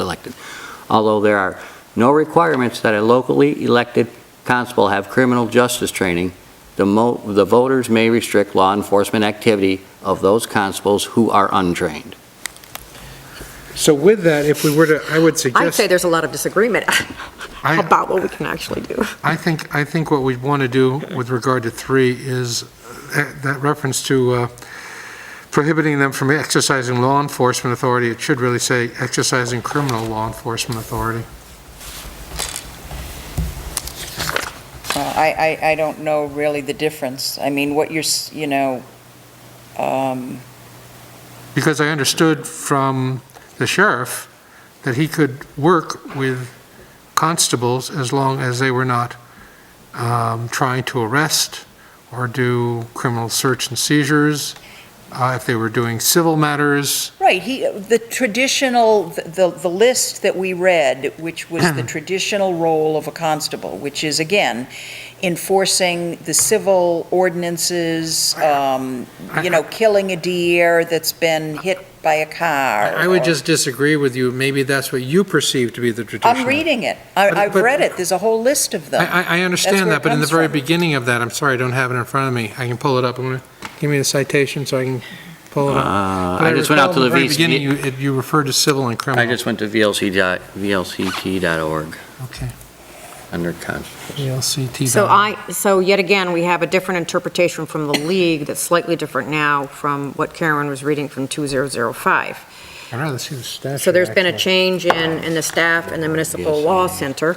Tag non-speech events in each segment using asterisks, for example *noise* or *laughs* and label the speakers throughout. Speaker 1: elected. Although there are no requirements that a locally elected constable have criminal justice training, the mo, the voters may restrict law enforcement activity of those constables who are untrained.
Speaker 2: So with that, if we were to, I would
Speaker 3: I'd say
Speaker 2: suggest,
Speaker 3: there's a lot of disagreement *laughs*
Speaker 2: I,
Speaker 3: about what we can actually do.
Speaker 2: I think, I think what we'd want to do with regard to three is uh, that reference to uh, prohibiting them from exercising law enforcement authority, it should really say exercising criminal law enforcement authority.
Speaker 4: Well, Uh, I, I, I don't know really the difference. I mean, what you're, s- you know, um,
Speaker 2: Because I understood from the sheriff that he could work with constables as long as they were not um, trying to arrest or do criminal search and seizures, uh, if they were doing civil matters.
Speaker 4: right, he, the traditional, the, the list that we read, which was
Speaker 2: *clears throat*
Speaker 4: the traditional role of a constable, which is, again, enforcing the civil ordinances, um, you know, killing a deer that's been hit by a car.
Speaker 2: I would
Speaker 4: or-
Speaker 2: just disagree with you. Maybe that's what you perceive to be the traditional.
Speaker 4: I'm reading it. I,
Speaker 2: But-
Speaker 4: I've
Speaker 2: but-
Speaker 4: read it. There's a whole list of them.
Speaker 2: I, I- I
Speaker 4: That's
Speaker 2: understand
Speaker 4: where it
Speaker 2: that, but in the
Speaker 4: comes
Speaker 2: very
Speaker 4: from.
Speaker 2: beginning of that, I'm sorry, I don't have it in front of me. I can pull it up. I'm going to, give me the citation so I can pull it
Speaker 1: Uh,
Speaker 2: up.
Speaker 1: I just went out to the
Speaker 2: But I recall
Speaker 1: VC,
Speaker 2: in the very beginning, you, it- you referred to civil and criminal.
Speaker 1: I just went to VLC dot, VLCT.org
Speaker 2: Okay,
Speaker 1: under constables.
Speaker 2: VLCT.
Speaker 3: So I, so yet again, we have a different interpretation from the league that's slightly different now from what Karen was reading from 2005.
Speaker 2: I'd rather see the statute.
Speaker 3: So there's been a
Speaker 2: actually.
Speaker 3: change in, in the staff and the municipal law center,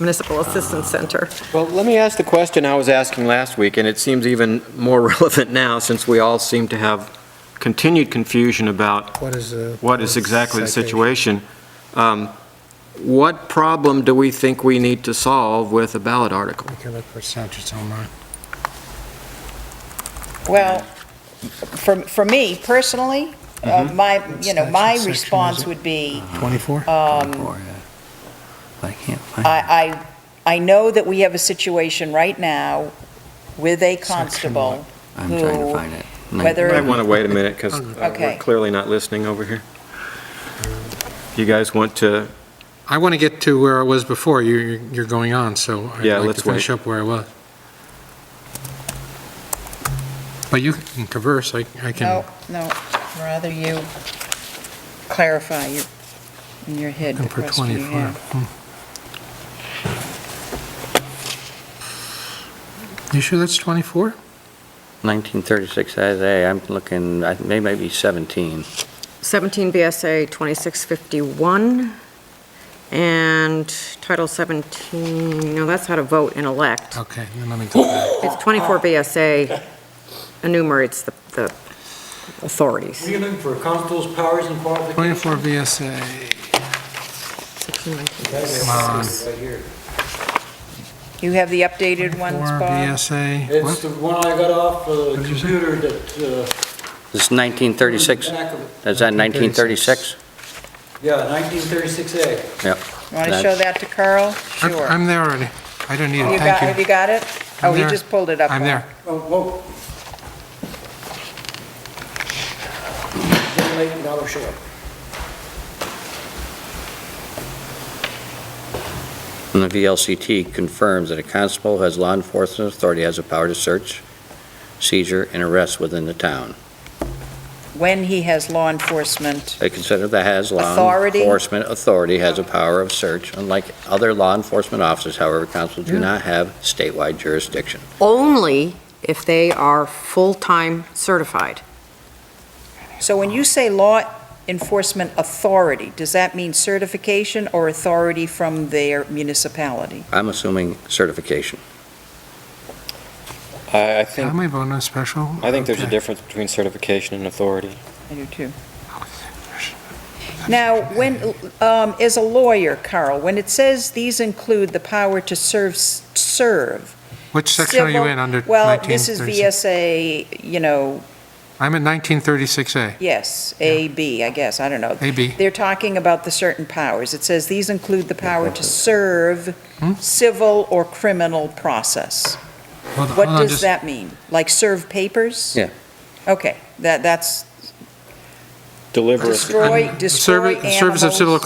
Speaker 3: municipal assistance center.
Speaker 5: Well, let me ask the question I was asking last week, and it seems even more *laughs* relevant now, since we all seem to have continued confusion about
Speaker 2: What is the?
Speaker 5: what is exactly the
Speaker 2: citation?
Speaker 5: situation. Um, What problem do we think we need to solve with a ballot article?
Speaker 2: I can look for statutes online.
Speaker 4: Well, for, for me personally, uh, my, you know,
Speaker 2: Mm-hmm.
Speaker 4: my
Speaker 2: Section, is
Speaker 4: response
Speaker 2: it?
Speaker 4: would be,
Speaker 2: 24?
Speaker 4: um,
Speaker 1: Or, uh, But I can't
Speaker 2: Uh-huh.
Speaker 1: find.
Speaker 4: I, I, I know that we have a situation right now with a constable,
Speaker 1: I'm trying to
Speaker 4: who-
Speaker 1: find it.
Speaker 4: whether-
Speaker 5: I want to wait a minute, because
Speaker 4: Okay.
Speaker 2: uh,
Speaker 5: we're clearly not listening over here. You guys want to,
Speaker 2: I want to get to where I was before. You- You're, you're going on, so I'd
Speaker 5: Yeah,
Speaker 2: like to
Speaker 5: let's
Speaker 2: finish up where I was. But you can converse, I, I
Speaker 4: no,
Speaker 2: can
Speaker 4: no, rather you clarify your, in your head
Speaker 2: go
Speaker 4: the
Speaker 2: for
Speaker 4: question you
Speaker 2: 24.
Speaker 4: have.
Speaker 2: Hmm. You sure that's 24?
Speaker 1: 1936, as a, I'm looking, I think they might be 17.
Speaker 3: 17 BSA 2651 and Title 17, no, that's how to vote and elect.
Speaker 2: Okay, then let me go back.
Speaker 3: It's 24 BSA enumerates the the authorities.
Speaker 6: Agreement for constable's powers and qualifications.
Speaker 2: 24 VSA.
Speaker 3: Section 19.
Speaker 6: That's
Speaker 2: Come on.
Speaker 6: Right here.
Speaker 4: You have the updated ones,
Speaker 2: Or
Speaker 4: Bob?
Speaker 2: VSA,
Speaker 6: It's
Speaker 2: what?
Speaker 6: the one I got off the
Speaker 2: What'd you say?
Speaker 6: computer that, uh...
Speaker 1: This is 1936, is
Speaker 6: back of-
Speaker 1: that 1936?
Speaker 6: Yeah, nineteen thirty-six A.
Speaker 1: Yep.
Speaker 4: Want to show that to Carl?
Speaker 2: I'm-
Speaker 4: Sure.
Speaker 2: I'm there already. I don't need
Speaker 4: You
Speaker 2: it, thank
Speaker 4: got, have
Speaker 2: you.
Speaker 4: you got it?
Speaker 2: I'm
Speaker 4: Oh, he
Speaker 2: there.
Speaker 4: just pulled it up.
Speaker 2: I'm
Speaker 4: Bob.
Speaker 2: there.
Speaker 6: Oh, whoa. Getting late, and dollar short.
Speaker 1: And the VLCT confirms that a constable who has law enforcement authority has the power to search, seizure, and arrest within the town.
Speaker 4: When he has law enforcement
Speaker 1: They consider that has law
Speaker 4: Authority?
Speaker 1: enforcement authority has a power of search. Unlike other law enforcement officers, however, constables do not have statewide jurisdiction.
Speaker 3: Only if they are full-time certified.
Speaker 4: So when you say law enforcement authority, does that mean certification or authority from their municipality?
Speaker 1: I'm assuming certification.
Speaker 7: I I
Speaker 2: Am
Speaker 7: think,
Speaker 2: I voting on special?
Speaker 7: I think there's a
Speaker 2: Okay.
Speaker 7: difference between certification and authority.
Speaker 4: I do too. Now, when, um, as a lawyer, Carl, when it says these include the power to serve, serve.
Speaker 2: Which section are you
Speaker 4: civil-
Speaker 2: in under
Speaker 4: Well, this is
Speaker 2: 1936?
Speaker 4: VSA, you know,
Speaker 2: I'm at 1936A,
Speaker 4: yes, A, B, I guess, I don't know.
Speaker 2: AB.
Speaker 4: They're talking about the certain powers. It says these include the power to serve
Speaker 2: Hmm?
Speaker 4: civil or criminal process.
Speaker 2: Hold on,
Speaker 4: What
Speaker 2: hold on
Speaker 4: does
Speaker 2: just-
Speaker 4: that mean? Like serve papers?
Speaker 1: Yeah.
Speaker 4: Okay, that, that's,
Speaker 7: deliver us.
Speaker 4: Destroy, destroy
Speaker 2: Service-
Speaker 4: animals.
Speaker 2: Service of civil